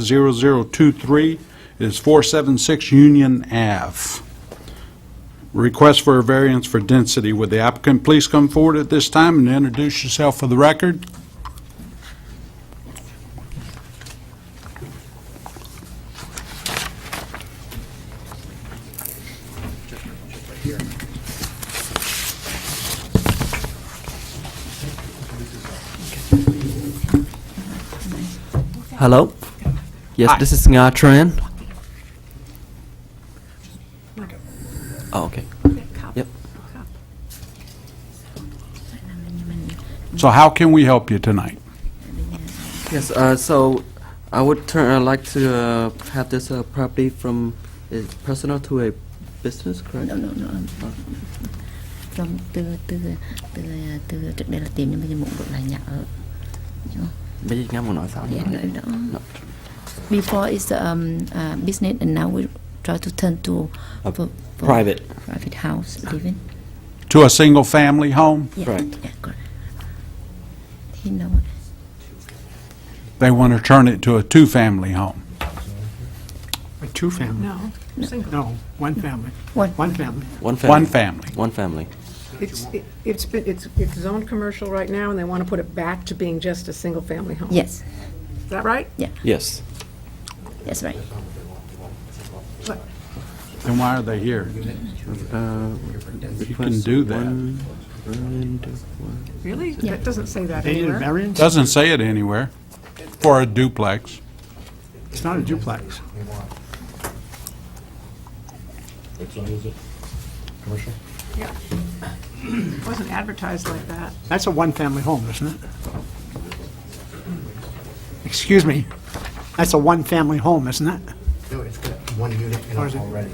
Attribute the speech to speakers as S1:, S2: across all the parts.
S1: Z02017-0023 is 476 Union Ave. Request for a variance for density. Would the applicant please come forward at this time and introduce yourself for the record?
S2: Hello? Yes,
S1: Hi.
S2: this is Nga Tran. Oh, okay. Yep.
S1: So how can we help you tonight?
S2: Yes, uh, so I would turn, I'd like to uh, have this uh, property from a personal to a business, correct?
S3: No, no, no. From từ từ từ từ trước đây là tìm nhưng bây giờ muốn đổi lại nhà ở.
S2: Bây giờ nghe một nói sao nhỉ?
S3: Yeah, no, no.
S2: No.
S3: Before is um uh, business and now we try to turn to
S2: A
S3: for- for
S2: private.
S3: private house living.
S1: To a single-family home?
S3: Yeah,
S2: Correct.
S3: Yeah, correct. Thì nó
S1: They want to turn it to a two-family home.
S4: A two-family?
S5: No, single,
S4: No, one family,
S3: one
S4: one family.
S2: One family.
S1: One family.
S2: One family.
S5: it's, it- it's been, it's, it's zoned commercial right now, and they want to put it back to being just a single-family home.
S3: yes,
S5: Is that right?
S2: Yes.
S3: that's right.
S1: Then why are they here?
S2: Uh,
S1: You can do that.
S5: Really?
S3: Yeah.
S5: That doesn't say that
S4: They need a
S5: anywhere.
S4: variance?
S1: Doesn't say it anywhere for a duplex.
S4: It's not a duplex.
S6: Which one is it? Commercial?
S5: It wasn't advertised like that.
S4: That's a one-family home, isn't it? Excuse me, that's a one-family home, isn't it?
S6: No, it's got one unit in
S4: Or is
S6: it
S4: it-
S6: already.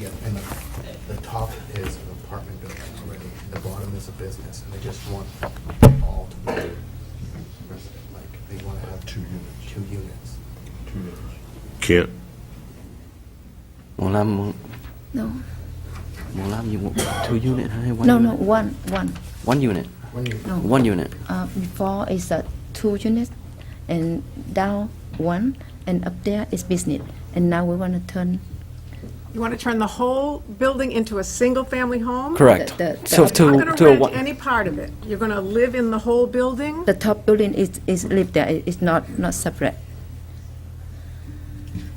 S6: Yeah, And the, the top is an apartment building already, the bottom is a business, and they just want all to be, resident. like, they want to have two units. Two units. Two units.
S7: Can't,
S2: Muốn làm, muốn
S3: No,
S2: muốn làm gì? Two unit hay one
S3: no,
S2: unit?
S3: no. One, one.
S2: One unit.
S6: One unit.
S3: No.
S2: One unit.
S3: Uh, before is a two unit and down one and up there is business and now we want to turn
S5: You want to turn the whole building into a single-family home?
S2: Correct.
S3: Oh, The- the-
S2: So
S3: the-
S2: to,
S5: You're not going
S2: to
S5: to
S2: a
S5: rent
S2: one,
S5: any part of it. You're going to live in the whole building?
S3: the top building is is live there it, it's not not separate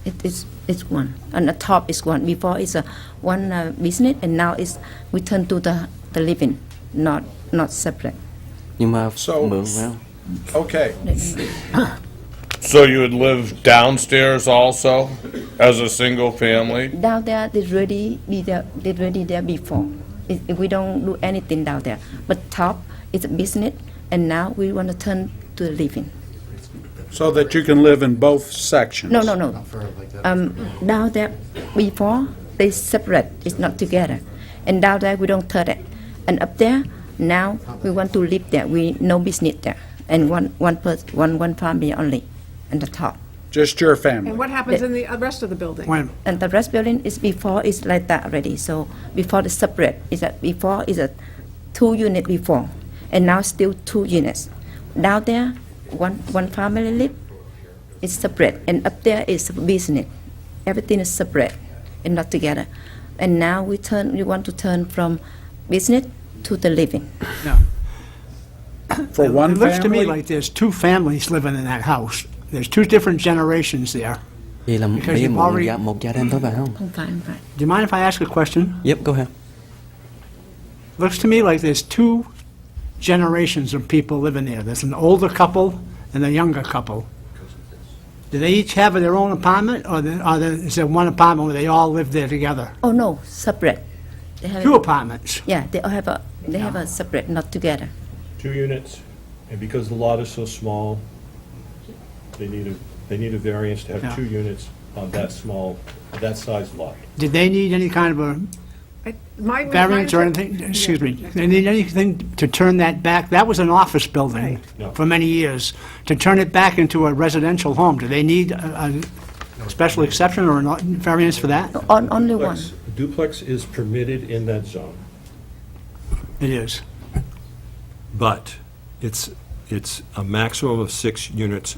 S3: it is it's one and the top is one before it's a one uh, business and now it's we turn to the the living not not separate
S2: nhưng mà
S1: So-
S2: mượn vào.
S1: Okay.
S7: so you would live downstairs also as a single family?
S3: down there they already be there they already there before it, it- we don't do anything down there but top is a business and now we want to turn to the living
S1: So that you can live in both sections?
S3: no no no
S6: For like that.
S3: um, down there before they separate it's not together and down there we don't turn it and up there now we want to live there we no business there and one one person one one family only and the top
S1: Just your
S5: And
S1: family?
S5: what happens in the uh, rest of the building?
S4: When,
S3: and the rest building is before is like that already. So before the separate is that before is a two unit before, and now still two units. Down there, one one family live, it's separate, and up there is business. Everything is separate and not together. And now we turn we want to turn from business to the living.
S1: For one
S4: It looks to me
S1: family?
S4: like there's two families living in that house. There's two different generations there.
S2: Vậy là
S4: Because
S2: bây giờ
S4: you've
S2: một
S4: already-
S2: gia, một gia đình thôi phải không?
S3: Không phải không phải.
S4: Do you mind if I ask a question?
S2: Yep, go ahead.
S4: Looks to me like there's two generations of people living there. There's an older couple and a younger couple. Do they each have their own apartment, or the- or the- is there one apartment where they all live there together?
S3: Oh no, separate. They have
S4: Two apartments.
S3: yeah, they all have a they have a separate, not together.
S8: two units, and because the lot is so small, they need a, they need a variance to
S4: Yeah.
S8: have two units on that small, that size lot.
S4: Did they need any kind of a
S5: I- my- my-
S4: variance or anything? Excuse me, they need anything to turn that back? That was an office building
S8: No.
S4: for many years. To turn it back into a residential home, do they need a a special exception or a variance for that?
S3: On, only one.
S8: Duplex- Duplex is permitted in that zone,
S4: It is.
S8: but it's it's a maximum of six units